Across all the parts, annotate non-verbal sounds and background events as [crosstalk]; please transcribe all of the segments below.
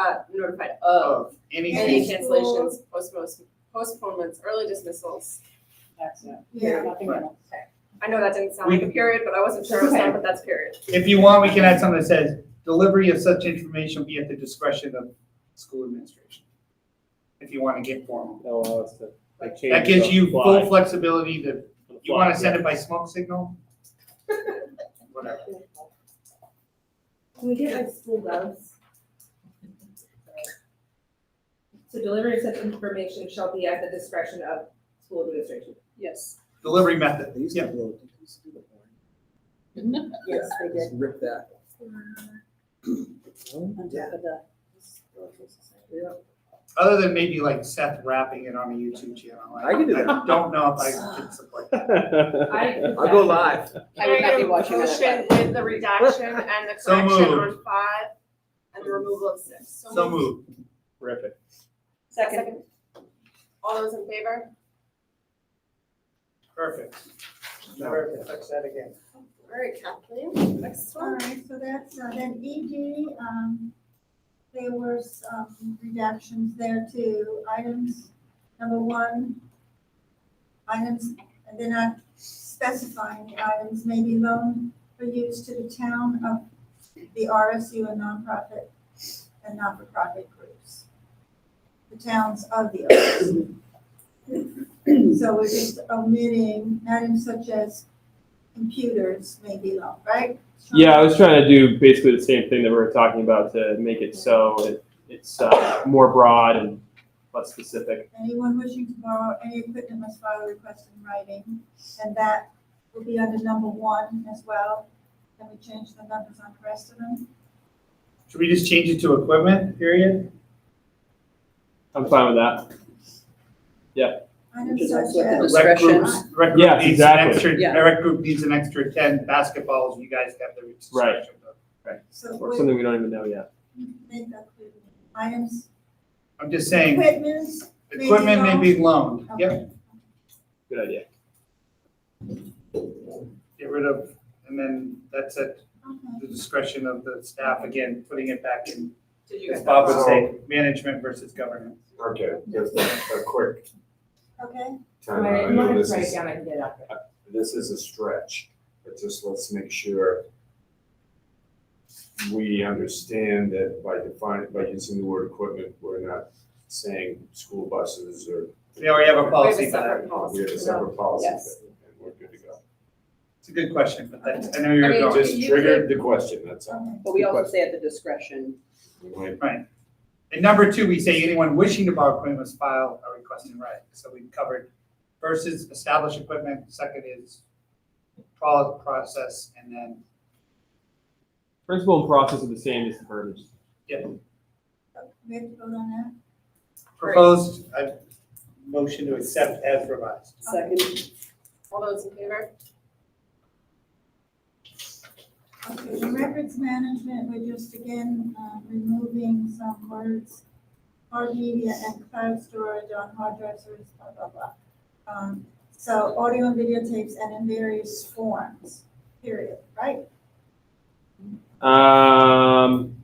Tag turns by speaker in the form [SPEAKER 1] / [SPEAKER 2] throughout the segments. [SPEAKER 1] uh, notified of
[SPEAKER 2] of any
[SPEAKER 1] any
[SPEAKER 2] fees,
[SPEAKER 3] Any
[SPEAKER 1] cancellations, postpones, postponements, early dismissals.
[SPEAKER 3] That's it.
[SPEAKER 2] Yeah.
[SPEAKER 3] Nothing
[SPEAKER 2] Right.
[SPEAKER 3] else.
[SPEAKER 1] I know that didn't sound
[SPEAKER 2] We-
[SPEAKER 1] like a period, but I wasn't sure it was not, but that's period.
[SPEAKER 2] if you want, we can add something that says, delivery of such information will be at the discretion of school administration. If you want to get formal.
[SPEAKER 4] They'll allow us to, uh, like, change
[SPEAKER 2] That gives
[SPEAKER 4] the
[SPEAKER 2] you
[SPEAKER 4] fly.
[SPEAKER 2] full flexibility to, you want to send it by smoke signal? Whatever.
[SPEAKER 5] Can we get like school gloves? So delivery of such information shall be at the discretion of school administration.
[SPEAKER 3] Yes.
[SPEAKER 2] Delivery method,
[SPEAKER 6] They used to
[SPEAKER 2] yeah.
[SPEAKER 6] blow, they used to do the horn.
[SPEAKER 3] Yes, they [laughs]
[SPEAKER 6] Just rip that.
[SPEAKER 3] On top
[SPEAKER 6] Yeah.
[SPEAKER 3] of the.
[SPEAKER 2] Other than maybe like Seth rapping it on a YouTube channel.
[SPEAKER 6] I can do that.
[SPEAKER 2] Don't know if I could support that.
[SPEAKER 4] [laughs]
[SPEAKER 5] I.
[SPEAKER 6] I'll go live.
[SPEAKER 3] I would not be watching
[SPEAKER 1] Motion
[SPEAKER 3] that.
[SPEAKER 1] with the redaction
[SPEAKER 3] [laughs]
[SPEAKER 1] and the
[SPEAKER 2] So
[SPEAKER 1] correction
[SPEAKER 2] moved.
[SPEAKER 1] on five and the removal of six.
[SPEAKER 2] So moved.
[SPEAKER 4] Rip it.
[SPEAKER 3] Second.
[SPEAKER 1] All those in favor?
[SPEAKER 2] Perfect. Perfect, fix that again.
[SPEAKER 1] All right, Kathleen, next
[SPEAKER 7] All
[SPEAKER 1] one.
[SPEAKER 7] right, so that's, uh, then ED, um, there were some redactions there to items, number one, items, and they're not specifying the items, maybe loan for use to the town of the RSU and nonprofit and not-for-profit groups. The towns of the RSU. So we're just omitting items such as computers may be loaned, right?
[SPEAKER 4] Yeah, I was trying to do basically the same thing that we were talking about to make it so it, it's uh, more broad and less specific.
[SPEAKER 7] Anyone wishing to borrow any equipment must file a request in writing, and that will be under number one as well. Can we change the numbers on the rest of them?
[SPEAKER 2] Should we just change it to equipment, period?
[SPEAKER 4] I'm fine with that.
[SPEAKER 7] Items
[SPEAKER 3] Just
[SPEAKER 7] such
[SPEAKER 3] like
[SPEAKER 7] as,
[SPEAKER 3] what
[SPEAKER 2] Rec
[SPEAKER 3] Discretion.
[SPEAKER 2] groups- Rec group
[SPEAKER 4] Yes,
[SPEAKER 2] needs an
[SPEAKER 4] exactly.
[SPEAKER 2] extra-
[SPEAKER 3] Yeah.
[SPEAKER 2] Rec group needs an extra ten basketballs, you guys have the
[SPEAKER 4] Right.
[SPEAKER 2] discretion. but
[SPEAKER 7] so
[SPEAKER 4] Or
[SPEAKER 7] we
[SPEAKER 4] something we don't even know yet.
[SPEAKER 7] make that clear. Items,
[SPEAKER 2] I'm just saying,
[SPEAKER 7] equipments, Maybe
[SPEAKER 2] equipment may be loaned, yep,
[SPEAKER 4] Good idea.
[SPEAKER 2] get rid of, and then that's at
[SPEAKER 7] okay.
[SPEAKER 2] the discretion of the staff, again, putting it back in,
[SPEAKER 1] Did you
[SPEAKER 2] as
[SPEAKER 1] guys?
[SPEAKER 2] Bob would say, management versus government.
[SPEAKER 8] Okay, just a, a quick
[SPEAKER 7] Okay,
[SPEAKER 8] time.
[SPEAKER 5] Right,
[SPEAKER 8] I
[SPEAKER 5] I'm not
[SPEAKER 8] know
[SPEAKER 5] gonna
[SPEAKER 8] this
[SPEAKER 5] write it
[SPEAKER 8] is,
[SPEAKER 5] down, I can get it out there.
[SPEAKER 8] this is a stretch, but just let's make sure we understand that by defining, by using the word equipment, we're not saying school buses or.
[SPEAKER 2] We already have a
[SPEAKER 1] We have
[SPEAKER 2] policy
[SPEAKER 1] a
[SPEAKER 2] for that.
[SPEAKER 1] separate
[SPEAKER 8] We
[SPEAKER 1] policy.
[SPEAKER 8] have a separate policy,
[SPEAKER 3] Yes.
[SPEAKER 8] for that, and we're good to go.
[SPEAKER 2] It's a good question, but that's, I know you're
[SPEAKER 1] I mean,
[SPEAKER 2] going.
[SPEAKER 1] just-
[SPEAKER 8] Just
[SPEAKER 1] you
[SPEAKER 8] triggered the question, that's all.
[SPEAKER 7] okay.
[SPEAKER 3] But we also say at the discretion.
[SPEAKER 8] We might-
[SPEAKER 2] And number two, we say anyone wishing to borrow equipment must file a request in writing. So we've covered versus established equipment, second is pro- process, and then,
[SPEAKER 4] Principle and process are the same as the verbiage.
[SPEAKER 2] yeah,
[SPEAKER 7] We have to vote on
[SPEAKER 2] proposed, I motion to accept as revised.
[SPEAKER 3] Second.
[SPEAKER 1] All those in favor?
[SPEAKER 7] that? Okay, the records management, we're just again, uh, removing some words, hard media and cloud storage on hard drives, or blah, blah, blah. Um, so audio and videotapes and in various forms, period, right?
[SPEAKER 4] Um,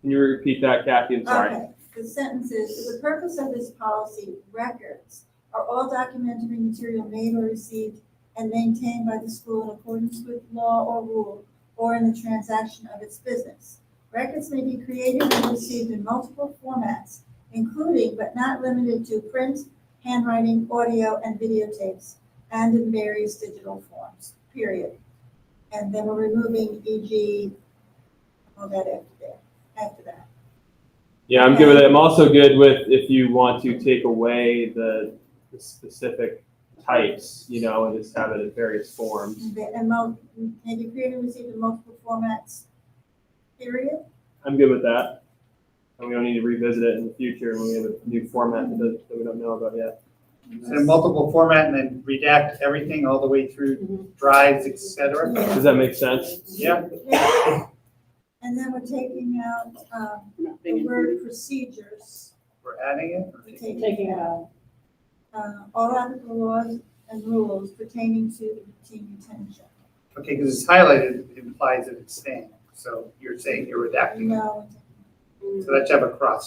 [SPEAKER 4] can you repeat that, Kathy? I'm sorry.
[SPEAKER 7] Okay, the sentence is, "For the purpose of this policy, records are all documentary material made or received and maintained by the school in accordance with law or rule or in the transaction of its business. Records may be created and received in multiple formats, including but not limited to print, handwriting, audio, and videotapes, and in various digital forms, period. And then we're removing EG, all that after there, after that.
[SPEAKER 4] Yeah, I'm good with it. I'm also good with if you want to take away the, the specific types, you know, and just have it in various forms.
[SPEAKER 7] The amount, and you create and receive in multiple formats, period.
[SPEAKER 4] I'm good with that. And we don't need to revisit it in the future when we have a new format that, doesn't- that we don't know about yet.
[SPEAKER 2] So in multiple format and then redact everything all the way through drives, et cetera.
[SPEAKER 4] Does that make sense?
[SPEAKER 2] Yeah,
[SPEAKER 7] Yeah. And then we're taking out, um, the word procedures,
[SPEAKER 2] we're adding
[SPEAKER 7] we're
[SPEAKER 2] it.
[SPEAKER 7] taking
[SPEAKER 3] Taking
[SPEAKER 7] out,
[SPEAKER 3] out.
[SPEAKER 7] uh, all applicable laws and rules pertaining to the routine retention.
[SPEAKER 2] Okay, because it's highlighted implies that it's staying. So you're saying you're redacting. it.
[SPEAKER 7] No,
[SPEAKER 1] No,
[SPEAKER 2] So that should have a cross